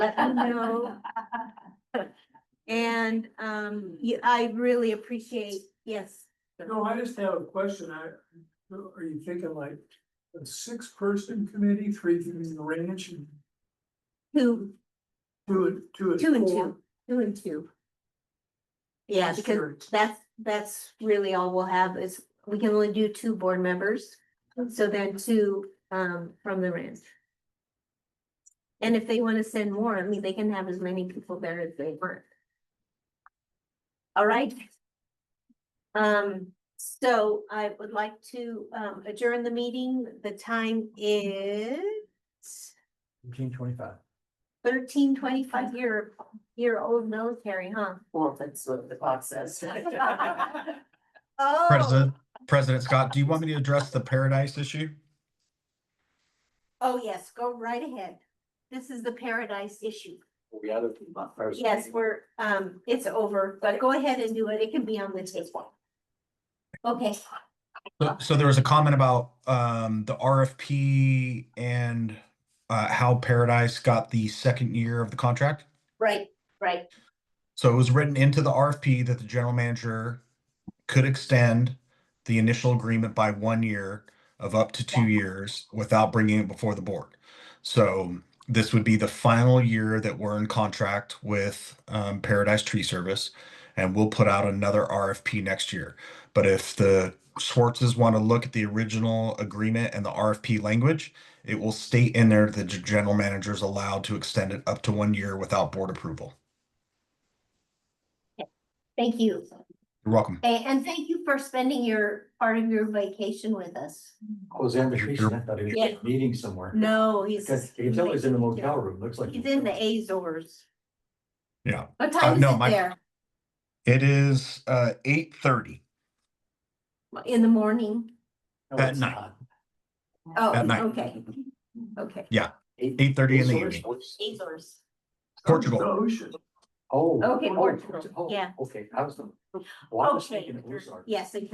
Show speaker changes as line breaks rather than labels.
No. And um, you, I really appreciate, yes.
No, I just have a question. I, are you thinking like a six person committee, three from the ranch and
Two,
two and two? at
two and
four?
two, two and two. Yeah,
Just
because
curious.
that's, that's really all we'll have is, we can only do two board members. So then two um from the ranch. And if they want to send more, I mean, they can have as many people there as they want. All right. Um, so I would like to um adjourn the meeting. The time is
Eighteen twenty-five.
thirteen twenty-five year, year old military, huh?
Well, that's what the clock says.
Oh.
President, President Scott, do you want me to address the paradise issue?
Oh, yes, go right ahead. This is the paradise issue.
We had a few months.
Yes, we're, um, it's over, but go ahead and do it. It can be on the table. Okay,
So- So there was a comment about um the RFP and uh how Paradise got the second year of the contract.
right, right,
So it was written into the RFP that the general manager could extend the initial agreement by one year of up to two years without bringing it before the board. So this would be the final year that we're in contract with um, Paradise Tree Service, and we'll put out another RFP next year. But if the Schwartzes want to look at the original agreement and the RFP language, it will state in there that the general manager is allowed to extend it up to one year without board approval.
thank you.
You're welcome.
A- And thank you for spending your, part of your vacation with us.
I was in the tree, stand, I thought he was
Yeah.
at a meeting somewhere.
No, he's.
Because you can tell he's in the motel room, looks like.
He's in the Azores.
Yeah.
What time is
Uh, no,
it
my-
there?
It is uh eight thirty.
In the morning?
No,
At
it's
night.
not.
Oh,
At night.
okay, okay.
Eight thirty in the
Resource
evening.
Works.
Azores.
Portugal.
Oh, shit.
Oh.
Okay,
oh,
Portugal,
oh,
yeah.
Okay, I was, well, I was
Okay.
thinking it was ours.
Yes,